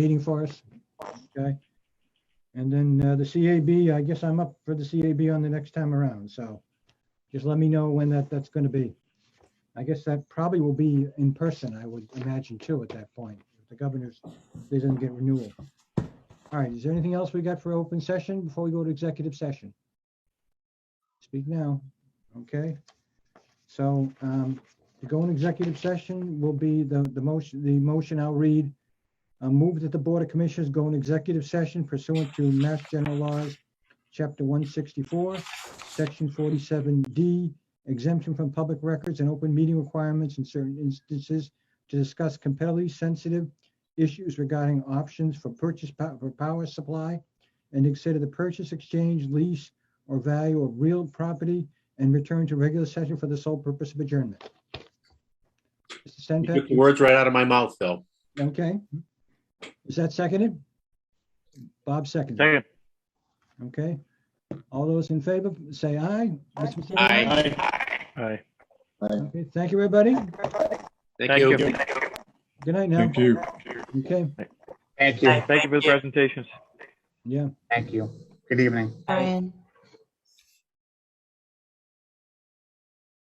meeting for us. Okay. And then uh, the CAB, I guess I'm up for the CAB on the next time around, so just let me know when that, that's going to be. I guess that probably will be in person, I would imagine too, at that point. If The governor's, they didn't get renewal. All right, is there anything else we got for open session before we go to executive session? Speak now, okay? So um, to go in executive session will be the, the motion, the motion I'll read uh, move that the Board of Commissioners go in executive session pursuant to Mass General Laws, Chapter 164, Section 47D, exemption from public records and open meeting requirements in certain instances to discuss competitively sensitive issues regarding options for purchase pow- for power supply and to consider the purchase, exchange, lease, or value of real property and return to regular session for the sole purpose of adjournment. Mr. You took Stenpak? the words right out of my mouth, Phil. Okay. Is that seconded? Bob seconded. Second. Okay. All those in favor, say aye. Mr. Mercedes? Aye. Aye. Okay, Thank you, everybody. Thank you. Good night now. Thank you. Okay, Thank you. Thank you for the presentations. yeah. Thank you. Good evening. Brian.